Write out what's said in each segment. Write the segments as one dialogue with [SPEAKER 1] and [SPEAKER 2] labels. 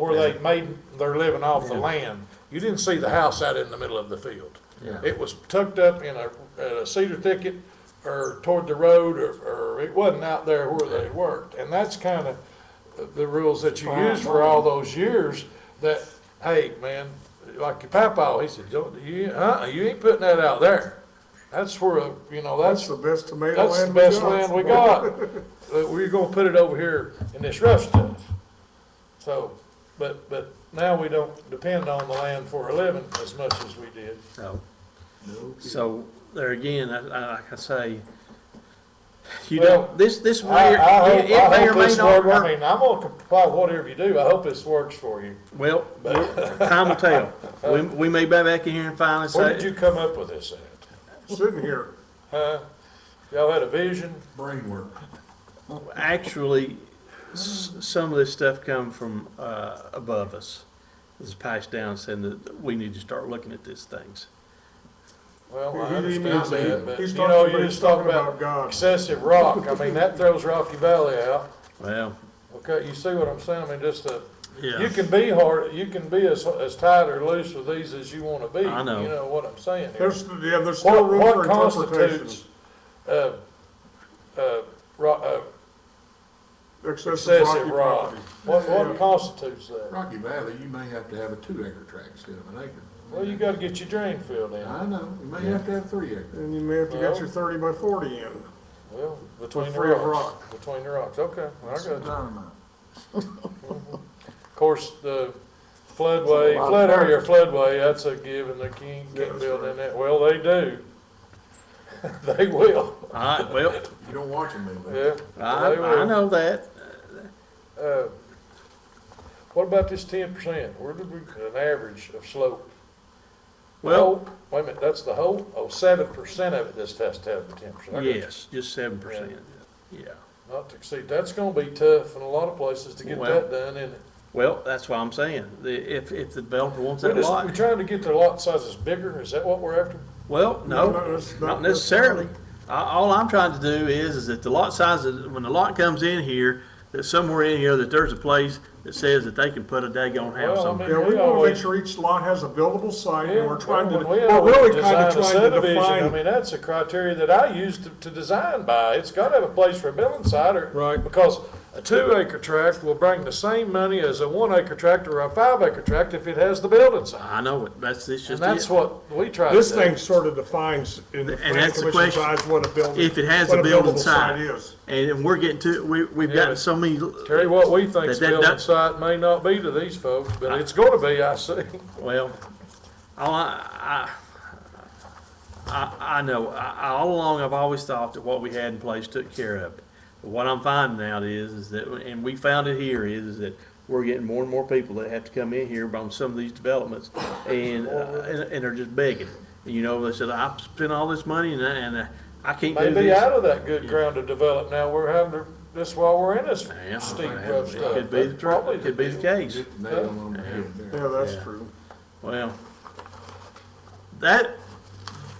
[SPEAKER 1] where they made, they're living off the land, you didn't see the house out in the middle of the field.
[SPEAKER 2] Yeah.
[SPEAKER 1] It was tucked up in a, a cedar thicket or toward the road or, or it wasn't out there where they worked. And that's kind of the rules that you used for all those years that, hey, man, like your papa, he said, don't, you, uh, you ain't putting that out there. That's where, you know,
[SPEAKER 3] That's
[SPEAKER 1] that's,
[SPEAKER 3] the best tomato land we got.
[SPEAKER 1] that's the best land we got. Uh, We're gonna put it over here in this rough stuff. So, but, but now we don't depend on the land for a living as much as we did.
[SPEAKER 2] So, so there again, I, I, like I say, you
[SPEAKER 1] Well,
[SPEAKER 2] don't, this, this
[SPEAKER 1] I,
[SPEAKER 2] may,
[SPEAKER 1] I
[SPEAKER 2] it
[SPEAKER 1] hope,
[SPEAKER 2] it
[SPEAKER 1] I
[SPEAKER 2] may or
[SPEAKER 1] hope
[SPEAKER 2] may
[SPEAKER 1] this
[SPEAKER 2] not
[SPEAKER 1] works, I
[SPEAKER 2] work.
[SPEAKER 1] mean, I'm gonna comply with whatever you do, I hope this works for you.
[SPEAKER 2] Well, we'll- time will tell. We, we may be back in here and finally
[SPEAKER 1] Where did
[SPEAKER 2] say,
[SPEAKER 1] you come up with this at?
[SPEAKER 3] Sitting here,
[SPEAKER 1] Huh? Y'all had a vision?
[SPEAKER 4] Brain work.
[SPEAKER 2] actually, s- some of this stuff come from, uh, above us. This is passed down saying that we need to start looking at these things.
[SPEAKER 1] Well, Oh, I
[SPEAKER 3] He- he
[SPEAKER 1] understand
[SPEAKER 3] means
[SPEAKER 1] that,
[SPEAKER 3] that.
[SPEAKER 1] but
[SPEAKER 3] He's
[SPEAKER 1] you
[SPEAKER 3] talking
[SPEAKER 1] know,
[SPEAKER 3] about-
[SPEAKER 1] you just
[SPEAKER 3] he's
[SPEAKER 1] talk
[SPEAKER 3] talking about
[SPEAKER 1] about
[SPEAKER 3] God.
[SPEAKER 1] excessive rock, I mean, that throws Rocky Valley out.
[SPEAKER 2] Well,
[SPEAKER 1] Okay, you see what I'm saying, I mean, just the, You
[SPEAKER 2] yeah,
[SPEAKER 1] can be hard, you can be as, as tight or loose with these as you wanna be.
[SPEAKER 2] I know.
[SPEAKER 1] You know what I'm saying here.
[SPEAKER 3] there's, yeah, there's still
[SPEAKER 1] What,
[SPEAKER 3] room for
[SPEAKER 1] what
[SPEAKER 3] interpretation.
[SPEAKER 1] constitutes, uh, uh, ro- uh,
[SPEAKER 3] Excessive
[SPEAKER 1] excessive
[SPEAKER 3] rocky
[SPEAKER 1] rock?
[SPEAKER 3] property.
[SPEAKER 1] What, what constitutes that?
[SPEAKER 4] Rocky Valley, you may have to have a two acre tract instead of an acre.
[SPEAKER 1] Well, you gotta get your drain filled in.
[SPEAKER 4] I know, you may have to have three acres.
[SPEAKER 3] And you may have to
[SPEAKER 1] Well-
[SPEAKER 3] get your thirty by forty in.
[SPEAKER 1] Well, between the
[SPEAKER 3] free of
[SPEAKER 1] rocks. Between the rocks, okay, I got you.
[SPEAKER 4] Dynamite.
[SPEAKER 1] Of course, the floodway, flood area, floodway, that's a given, the king
[SPEAKER 3] Yeah,
[SPEAKER 1] can't
[SPEAKER 3] that's
[SPEAKER 1] build in
[SPEAKER 3] right.
[SPEAKER 1] that. Well, they do. They will,
[SPEAKER 2] alright, well,
[SPEAKER 4] You don't watch them anymore.
[SPEAKER 1] yeah.
[SPEAKER 2] I,
[SPEAKER 1] they will.
[SPEAKER 2] I know that.
[SPEAKER 1] Uh, What about this ten percent? Where did we, an average of slope?
[SPEAKER 2] Well,
[SPEAKER 1] Oh, Wait a minute, that's the whole, oh, seven percent of it, this has to have the ten percent.
[SPEAKER 2] yes, just seven percent, yeah.
[SPEAKER 1] Not to exceed, that's gonna be tough in a lot of places to get
[SPEAKER 2] Well,
[SPEAKER 1] that done, and
[SPEAKER 2] Well, that's what I'm saying. The, if, if the developer wants
[SPEAKER 1] we're
[SPEAKER 2] that
[SPEAKER 1] just, we're
[SPEAKER 2] lot,
[SPEAKER 1] trying to get the lot sizes bigger, is that what we're after?
[SPEAKER 2] well,
[SPEAKER 3] Not
[SPEAKER 2] no,
[SPEAKER 3] necess-
[SPEAKER 2] not necessarily. I- All I'm trying to do is, is that the lot sizes, when the lot comes in here, that somewhere in here, that there's a place that says that they can put a daggone house
[SPEAKER 1] Well, I
[SPEAKER 2] on
[SPEAKER 1] mean-
[SPEAKER 2] it.
[SPEAKER 3] Yeah, we
[SPEAKER 1] We
[SPEAKER 3] wanna make
[SPEAKER 1] always-
[SPEAKER 3] sure each lot has a buildable site,
[SPEAKER 1] Yeah,
[SPEAKER 3] and we're trying to,
[SPEAKER 1] when we
[SPEAKER 3] we're
[SPEAKER 1] always
[SPEAKER 3] really kinda
[SPEAKER 1] design a
[SPEAKER 3] trying to
[SPEAKER 1] subdivision, I
[SPEAKER 3] define.
[SPEAKER 1] mean, that's a criteria that I use to, to design by. It's gotta have a place for a building site or.
[SPEAKER 3] Right.
[SPEAKER 1] Because a two acre tract will bring the same money as a one acre tract or a five acre tract if it has the building site.
[SPEAKER 2] I know it, that's, it's
[SPEAKER 1] And
[SPEAKER 2] just
[SPEAKER 1] that's
[SPEAKER 2] it.
[SPEAKER 1] what we try to do.
[SPEAKER 3] This thing sort of defines in the
[SPEAKER 2] And
[SPEAKER 3] planning
[SPEAKER 2] that's the
[SPEAKER 3] commission's
[SPEAKER 2] question.
[SPEAKER 3] eyes what a building.
[SPEAKER 2] If it has
[SPEAKER 3] what
[SPEAKER 2] a building
[SPEAKER 3] buildable
[SPEAKER 2] site.
[SPEAKER 3] Is.
[SPEAKER 2] And then we're getting to, we, we've
[SPEAKER 1] Yeah.
[SPEAKER 2] got so many,
[SPEAKER 1] Terry, what we think's
[SPEAKER 2] That- that-
[SPEAKER 1] building
[SPEAKER 2] that-
[SPEAKER 1] site may not be to these folks, but it's gonna be, I see.
[SPEAKER 2] well, all I, I, I, I know, I, I- all along, I've always thought that what we had in place took care of. it. But What I'm finding out is, is that, and we found it here, is, is that we're getting more and more people that have to come in here on some of these developments and, uh, and, and are just begging. You know, they said, I've spent all this money and I, and I- I can't do
[SPEAKER 1] Maybe out
[SPEAKER 2] this.
[SPEAKER 1] of that good ground to develop now, we're having to, this while we're in this
[SPEAKER 2] Yeah.
[SPEAKER 1] steep rough stuff.
[SPEAKER 2] Could be,
[SPEAKER 1] That's probably
[SPEAKER 2] the- could be the
[SPEAKER 1] deal.
[SPEAKER 2] case.
[SPEAKER 4] Hit the nail on the head there.
[SPEAKER 3] Yeah, that's
[SPEAKER 2] Yeah.
[SPEAKER 3] true.
[SPEAKER 2] Well, that,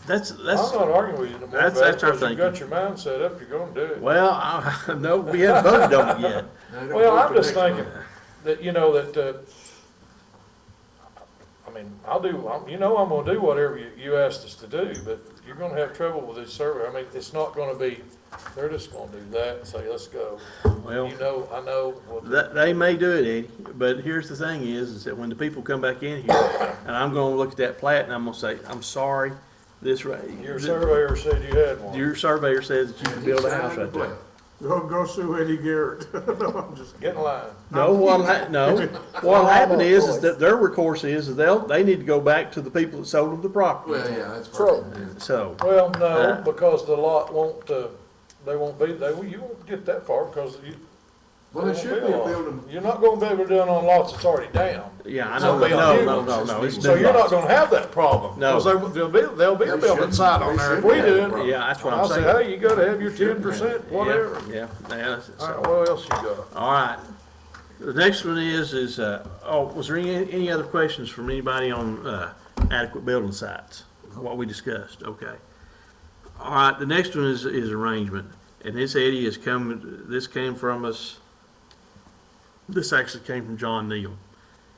[SPEAKER 2] that's,
[SPEAKER 1] I'm
[SPEAKER 2] that's.
[SPEAKER 1] not arguing with you no more
[SPEAKER 2] That's-
[SPEAKER 1] about it,
[SPEAKER 2] that's our
[SPEAKER 1] because you've got your mind set up, you're gonna do it.
[SPEAKER 2] Well, I, no, we haven't voted on it yet.
[SPEAKER 4] They don't
[SPEAKER 1] Well,
[SPEAKER 4] work
[SPEAKER 1] I'm
[SPEAKER 4] the
[SPEAKER 1] just
[SPEAKER 4] next
[SPEAKER 1] thinking that, you know, that, uh, I mean, I'll do, I'm- you know, I'm gonna do whatever you, you asked us to do, but you're gonna have trouble with this survey. I mean, it's not gonna be, they're just gonna do that and say, let's go.
[SPEAKER 2] Well,
[SPEAKER 1] You know, I know, well,
[SPEAKER 2] that, they may do it, Eddie, but here's the thing is, is that when the people come back in here, and I'm gonna look at that plat and I'm gonna say, I'm sorry, this right.
[SPEAKER 1] your surveyor said you had one.
[SPEAKER 2] Your surveyor says that you
[SPEAKER 4] month.
[SPEAKER 2] can build a house
[SPEAKER 4] Inside
[SPEAKER 2] right
[SPEAKER 4] the
[SPEAKER 2] there.
[SPEAKER 3] Go, go sue Eddie Garrett. No, I'm just
[SPEAKER 1] Get
[SPEAKER 3] kidding.
[SPEAKER 1] in line.
[SPEAKER 2] No, what'll hap, no, what'll happen is, is that their recourse is, is they'll, they need to go back to the people that sold them the
[SPEAKER 4] plat.
[SPEAKER 2] property,
[SPEAKER 4] Well, yeah, that's probably. it.
[SPEAKER 2] so.
[SPEAKER 1] Well,
[SPEAKER 2] Uh,
[SPEAKER 1] no, because the lot won't, uh, they won't be, they, you won't get that far because you.
[SPEAKER 4] Well,
[SPEAKER 1] they
[SPEAKER 4] it
[SPEAKER 1] won't
[SPEAKER 4] should be a
[SPEAKER 1] lot.
[SPEAKER 4] building.
[SPEAKER 1] You're not gonna be able to do it on lots that's already down.
[SPEAKER 2] Yeah, I
[SPEAKER 1] So
[SPEAKER 2] know, no,
[SPEAKER 1] they'll do-
[SPEAKER 2] no, no, no, it's
[SPEAKER 1] So
[SPEAKER 2] new
[SPEAKER 1] you're not
[SPEAKER 2] lots.
[SPEAKER 1] gonna have that problem.
[SPEAKER 2] No.
[SPEAKER 1] 'cause they- There'll be, there'll be a
[SPEAKER 4] They
[SPEAKER 1] building
[SPEAKER 4] shouldn't-
[SPEAKER 1] site on
[SPEAKER 4] they
[SPEAKER 1] there if
[SPEAKER 4] shouldn't
[SPEAKER 1] we
[SPEAKER 4] have that
[SPEAKER 1] do
[SPEAKER 4] problem.
[SPEAKER 1] it.
[SPEAKER 2] Yeah, that's what I'm
[SPEAKER 1] I'll say,
[SPEAKER 2] saying.
[SPEAKER 1] hey, you gotta have your ten percent,
[SPEAKER 2] Yeah,
[SPEAKER 1] whatever.
[SPEAKER 2] Yeah, yeah, so-
[SPEAKER 1] All right, what else you got?
[SPEAKER 2] All right. The next one is, is, uh, oh, was there any, any other questions from anybody on, uh, adequate building sites? What we discussed, okay. All right, the next one is, is arrangement, and this Eddie is coming, this came from us, this actually came from John Neal.